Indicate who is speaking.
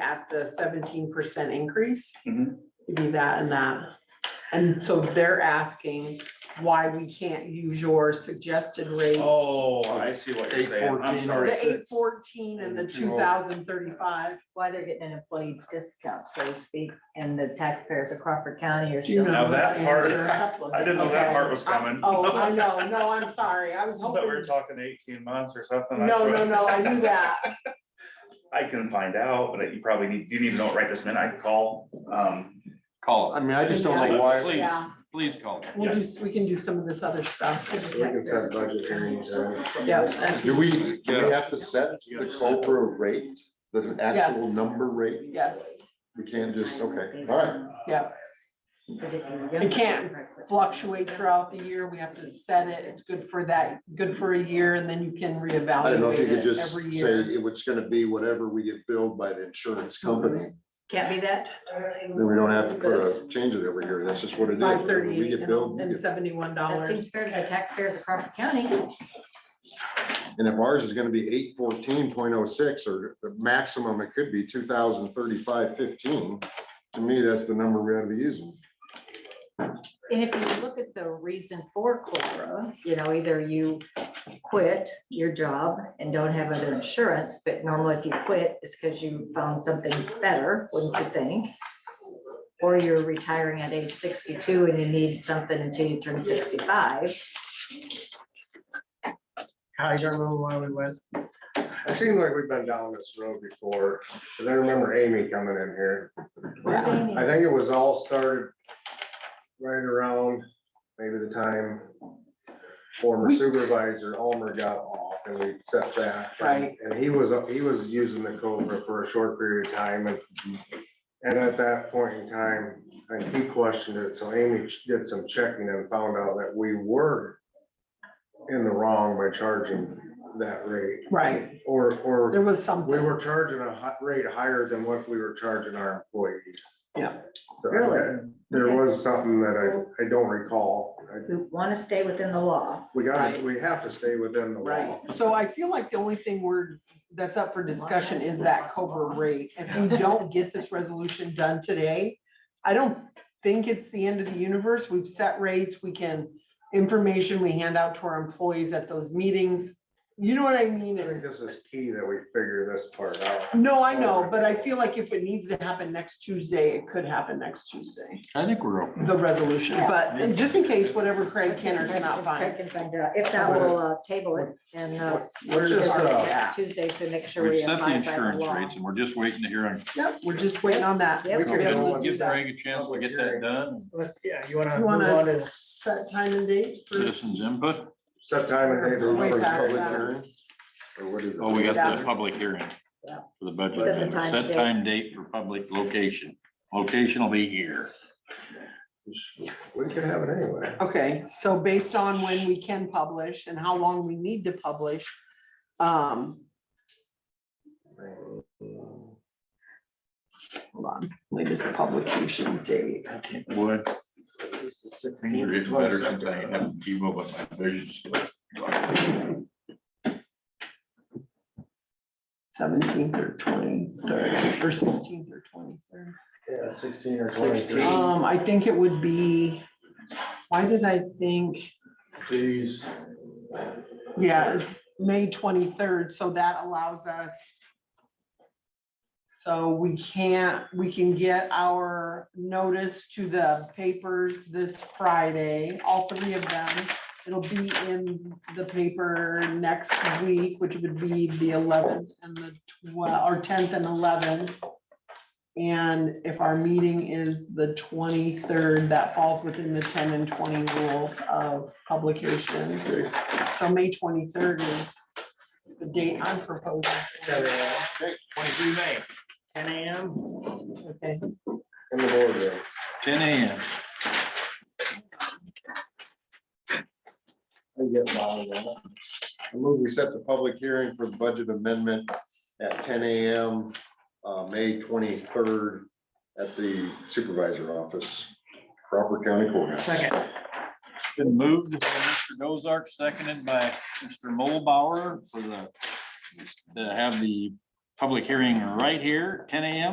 Speaker 1: at the seventeen percent increase.
Speaker 2: Mhm.
Speaker 1: It'd be that and that. And so they're asking why we can't use your suggested rates.
Speaker 2: Oh, I see what you're saying, I'm
Speaker 3: 814.
Speaker 2: sorry.
Speaker 1: The eight fourteen and the two thousand thirty-five.
Speaker 4: why they're getting an employee discount, so to speak, and the taxpayers of Crawford County are
Speaker 1: Do you
Speaker 4: still.
Speaker 1: know
Speaker 2: Now that
Speaker 1: the
Speaker 2: part-
Speaker 1: answer?
Speaker 2: I didn't know that part was coming.
Speaker 1: Oh, I know, no, I'm sorry, I was
Speaker 2: I thought we were
Speaker 1: hoping,
Speaker 2: talking eighteen months or something. I
Speaker 1: no,
Speaker 2: swear.
Speaker 1: no, no, I knew that,
Speaker 2: I can find out, but you probably need, you need to know it right this minute, I can call, um,
Speaker 3: Call it. I mean, I just don't know why.
Speaker 5: Please,
Speaker 1: yeah,
Speaker 5: please call.
Speaker 1: we'll do, we can do some of this other stuff.
Speaker 6: We can set budget hearings, uh,
Speaker 1: Yeah, that's-
Speaker 3: Do we, do we have to set the Cobra rate, the actual
Speaker 1: Yes.
Speaker 3: number rate?
Speaker 1: yes,
Speaker 3: We can't just, okay, all right.
Speaker 1: yeah, It can't fluctuate throughout the year, we have to set it, it's good for that, good for a year, and then you can
Speaker 3: I don't know
Speaker 1: reevaluate
Speaker 3: if you could
Speaker 1: it
Speaker 3: just
Speaker 1: every
Speaker 3: say
Speaker 1: year.
Speaker 3: it was gonna be whatever we get billed by the insurance company,
Speaker 4: Can't be that,
Speaker 3: then we don't have to put a change it every year, that's just what it is.
Speaker 1: Five
Speaker 3: Whatever We
Speaker 1: thirty-eight
Speaker 3: get billed, we
Speaker 1: and
Speaker 3: get-
Speaker 1: seventy-one
Speaker 4: that seems
Speaker 1: dollars,
Speaker 4: fair to the taxpayers of Crawford County,
Speaker 3: and if ours is gonna be eight fourteen point oh six, or the maximum it could be two thousand thirty-five fifteen, to me, that's the number we ought to be using.
Speaker 4: and if you look at the reason for Cobra, you know, either you quit your job and don't have other insurance, but normally if you quit, it's because you found something better, wouldn't you think? Or you're retiring at age sixty-two and you need something until you turn sixty-five.
Speaker 7: I don't remember why we went.
Speaker 6: It seemed like we've been down this road before, because I remember Amy coming in here.
Speaker 4: Where's Amy?
Speaker 6: I think it was all started right around maybe the time former supervisor Almer got off and we set that.
Speaker 1: Right.
Speaker 6: And he was, he was using the Cobra for a short period of time and, and at that point in time, and he questioned it, so Amy did some checking and found out that we were in the wrong by charging that rate.
Speaker 1: right,
Speaker 6: Or, or
Speaker 1: there was
Speaker 6: we
Speaker 1: something,
Speaker 6: were charging a hi- rate higher than what we were charging our employees.
Speaker 1: Yeah.
Speaker 6: So I-
Speaker 4: Really?
Speaker 6: There was something that I, I don't recall. I-
Speaker 4: We want to stay within the law.
Speaker 6: We gotta,
Speaker 1: Right.
Speaker 6: we have to stay within the law.
Speaker 1: right, so I feel like the only thing we're, that's up for discussion is that Cobra rate. If we don't get this resolution done today, I don't think it's the end of the universe, we've set rates, we can, information we hand out to our employees at those meetings. You know what I mean,
Speaker 6: I
Speaker 1: It's-
Speaker 6: think this is key that we figure this part out.
Speaker 1: No, I know, but I feel like if it needs to happen next Tuesday, it could happen next Tuesday,
Speaker 5: I think we're open.
Speaker 1: the resolution, but and just in case, whatever Craig can or cannot
Speaker 4: Let's check
Speaker 1: find.
Speaker 4: and find out. If not, we'll uh, table it and uh,
Speaker 6: We're just, uh,
Speaker 4: it's Tuesday, so make sure we
Speaker 5: We've set the
Speaker 4: abide by the
Speaker 5: insurance
Speaker 4: law.
Speaker 5: rates and we're just waiting to hear on,
Speaker 1: Yep, we're just waiting on that.
Speaker 4: Yep.
Speaker 6: we
Speaker 1: We'll be
Speaker 6: can
Speaker 1: able
Speaker 6: go
Speaker 1: to
Speaker 6: on
Speaker 1: do
Speaker 5: give
Speaker 1: that.
Speaker 5: Craig a chance to get that done,
Speaker 7: Let's, yeah, you wanna
Speaker 1: You
Speaker 7: move on
Speaker 1: wanna
Speaker 7: to,
Speaker 1: set time and date for,
Speaker 5: citizens input.
Speaker 6: set time and date.
Speaker 3: Or
Speaker 1: Way
Speaker 3: for
Speaker 1: past
Speaker 3: public
Speaker 1: that.
Speaker 3: hearing? Or what is it?
Speaker 5: Oh, we got
Speaker 1: Yeah.
Speaker 5: the public hearing
Speaker 4: Yeah.
Speaker 5: for the
Speaker 4: Set the
Speaker 5: budget.
Speaker 4: time,
Speaker 5: Set
Speaker 4: date.
Speaker 5: time, date for public location. Location will be here.
Speaker 6: We could have it anyway.
Speaker 1: okay, so based on when we can publish and how long we need to publish. Um, hold on, latest publication date.
Speaker 5: Boy, things are getting better since I haven't T-Mobile, but my vision's still.
Speaker 1: Seventeenth or twenty-third, or sixteenth or twenty-third.
Speaker 7: yeah, sixteen or
Speaker 5: Sixteen.
Speaker 7: twenty-three.
Speaker 1: Um, I think it would be, why did I think,
Speaker 7: Please.
Speaker 1: yeah, it's May twenty-third, so that allows us. So we can't, we can get our notice to the papers this Friday, all three of them. It'll be in the paper next week, which would be the eleventh and the twelve, or tenth and eleventh. And if our meeting is the twenty-third, that falls within the ten and twenty rules of publications. So May twenty-third is the date I'm proposing.
Speaker 7: Twenty-three May, ten AM.
Speaker 1: Okay.
Speaker 6: In the boardroom.
Speaker 5: Ten AM.
Speaker 3: I get mine, man. I move we set the public hearing for the budget amendment at ten AM, uh, May twenty-third at the supervisor office, Crawford County Courthouse.
Speaker 7: Second.
Speaker 5: Been moved by Mr. Dozark, seconded by Mr. Mulbauer for the, to have the public hearing right here, ten AM